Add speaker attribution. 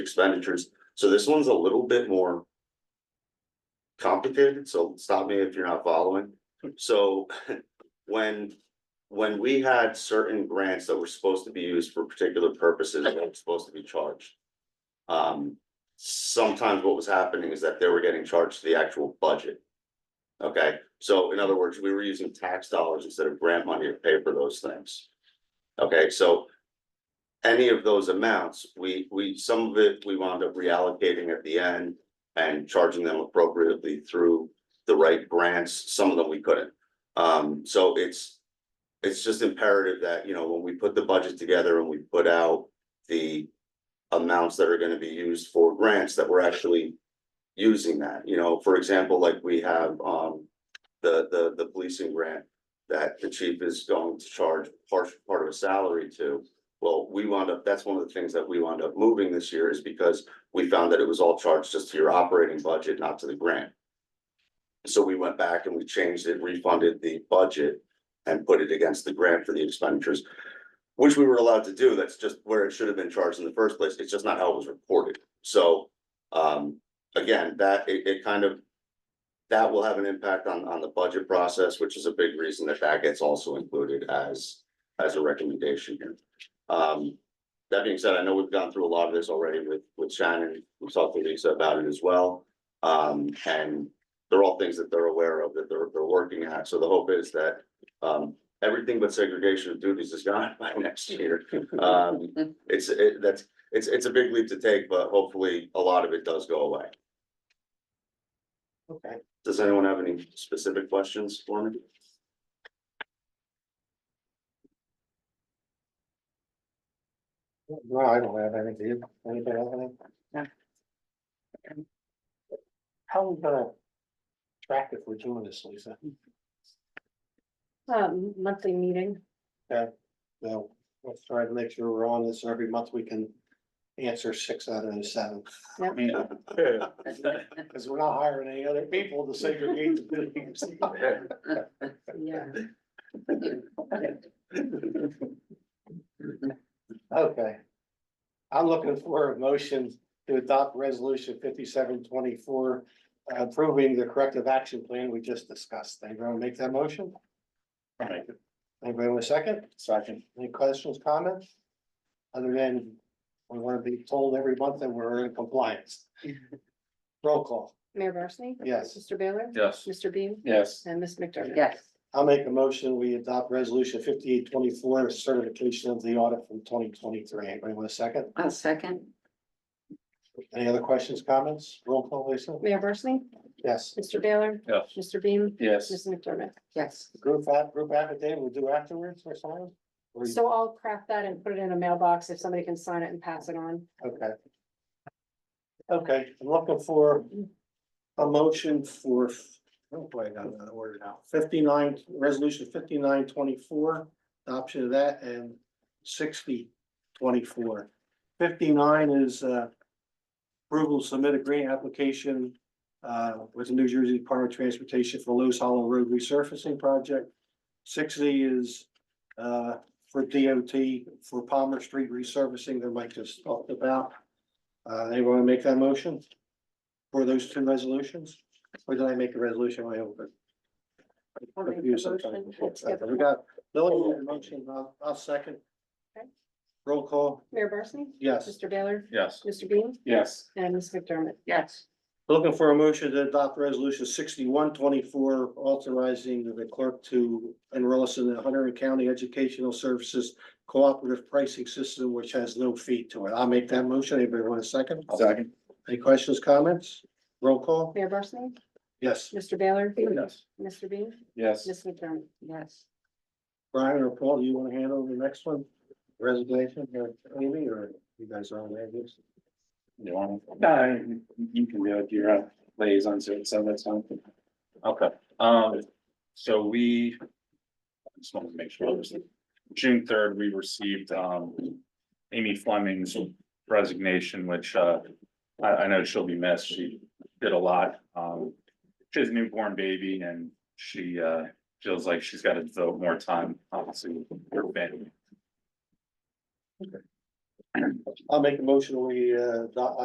Speaker 1: expenditures. So this one's a little bit more complicated, so stop me if you're not following. So when, when we had certain grants that were supposed to be used for particular purposes, that were supposed to be charged. Um, sometimes what was happening is that they were getting charged to the actual budget. Okay, so in other words, we were using tax dollars instead of grant money to pay for those things. Okay, so any of those amounts, we, we, some of it, we wound up reallocating at the end and charging them appropriately through the right grants, some of them we couldn't. Um, so it's, it's just imperative that, you know, when we put the budget together and we put out the amounts that are gonna be used for grants, that we're actually using that, you know, for example, like we have, um, the, the, the policing grant that the chief is going to charge part, part of a salary to. Well, we wound up, that's one of the things that we wound up moving this year is because we found that it was all charged just to your operating budget, not to the grant. So we went back and we changed it, refunded the budget and put it against the grant for the expenditures. Which we were allowed to do, that's just where it should have been charged in the first place, it's just not how it was reported, so, um, again, that, it, it kind of. That will have an impact on, on the budget process, which is a big reason that that gets also included as, as a recommendation here. Um, that being said, I know we've gone through a lot of this already with, with Shannon, we talked to Lisa about it as well. Um, and they're all things that they're aware of, that they're, they're working at, so the hope is that, um, everything but segregation of duties is gone by next year. Um, it's, it, that's, it's, it's a big leap to take, but hopefully a lot of it does go away.
Speaker 2: Okay,
Speaker 1: Does anyone have any specific questions for me?
Speaker 2: no, I don't have anything, You- anybody have anything?
Speaker 3: No.
Speaker 2: How are we gonna track if we're doing this, Lisa?
Speaker 3: Um, monthly meeting,
Speaker 2: Well, let's try to make sure we're on this every month, we can answer six out of the seven.
Speaker 3: Yep.
Speaker 2: Cause we're not hiring any other people to segregate the buildings.
Speaker 3: yeah.
Speaker 2: Okay. I'm looking for a motion to adopt resolution fifty-seven twenty-four approving the corrective action plan we just discussed. Anybody want to make that motion? Anybody want a second? Second. Any questions, comments? Other than we want to be told every month that we're in compliance. Roll call.
Speaker 3: Mayor Barsney?
Speaker 2: Yes.
Speaker 3: Mr. Baylor?
Speaker 4: Yes.
Speaker 3: Mr. Bean?
Speaker 4: Yes.
Speaker 3: And Miss McDermott?
Speaker 5: Yes,
Speaker 2: I'll make a motion. We adopt resolution fifty-eight twenty-four certification of the audit from twenty twenty-three. Anybody want a second?
Speaker 5: I'll second.
Speaker 2: Any other questions, comments? Roll call, Lisa?
Speaker 3: Mayor Barsney?
Speaker 2: Yes.
Speaker 3: Mr. Baylor?
Speaker 4: Yes.
Speaker 3: Mr. Bean?
Speaker 4: Yes.
Speaker 3: Miss McDermott?
Speaker 5: Yes,
Speaker 2: Group app, group affidavit we'll do afterwards or something? Or you-
Speaker 3: So I'll craft that and put it in a mailbox if somebody can sign it and pass it on.
Speaker 2: Okay. Okay, I'm looking for a motion for, oh boy, I got another word now, fifty-nine, resolution fifty-nine twenty-four, adoption of that and sixty twenty-four. Fifty-nine is uh approval to submit a grant application uh with the New Jersey Department of Transportation for Lewis Hollow Road resurfacing project. Sixty is uh for DOT for Palmer Street resurfacing that Mike just talked about. Uh, anyone wanna make that motion? For those two resolutions? Or did I make a resolution way over?
Speaker 3: I'll make the
Speaker 2: Confused
Speaker 3: motion.
Speaker 2: sometimes. Okay, We got, Lily made a motion, I'll, I'll second.
Speaker 3: Okay.
Speaker 2: Roll call,
Speaker 3: Mayor Barsney?
Speaker 2: yes.
Speaker 3: Mr. Baylor?
Speaker 4: Yes.
Speaker 3: Mr. Bean?
Speaker 4: Yes.
Speaker 3: And Miss McDermott?
Speaker 5: yes,
Speaker 2: Looking for a motion to adopt resolution sixty-one twenty-four, authorizing the clerk to enroll us in the Hunter County Educational Services Cooperative Pricing System, which has no fee to it. I'll make that motion. Anybody want a second?
Speaker 4: Second.
Speaker 2: Any questions, comments? Roll call?
Speaker 3: Mayor Barsney?
Speaker 2: Yes.
Speaker 3: Mr. Baylor?
Speaker 4: Yes.
Speaker 3: Mr. Bean?
Speaker 4: Yes.
Speaker 3: Miss McDermott?
Speaker 5: yes.
Speaker 2: Brian or Paul, do you want to handle the next one? Resignation or Amy or you guys are on that? yes?
Speaker 4: You want it? No, you can do it, you're a liaison, so it's on that sound. Okay, um, so we. Just wanted to make sure, obviously. June third, we received, um, Amy Fleming's resignation, which, uh. I, I know she'll be missed, she did a lot, um, she has a newborn baby and she, uh, feels like she's gotta devote more time, obviously, to her family.
Speaker 2: I'll make a motion, we, uh, adopt-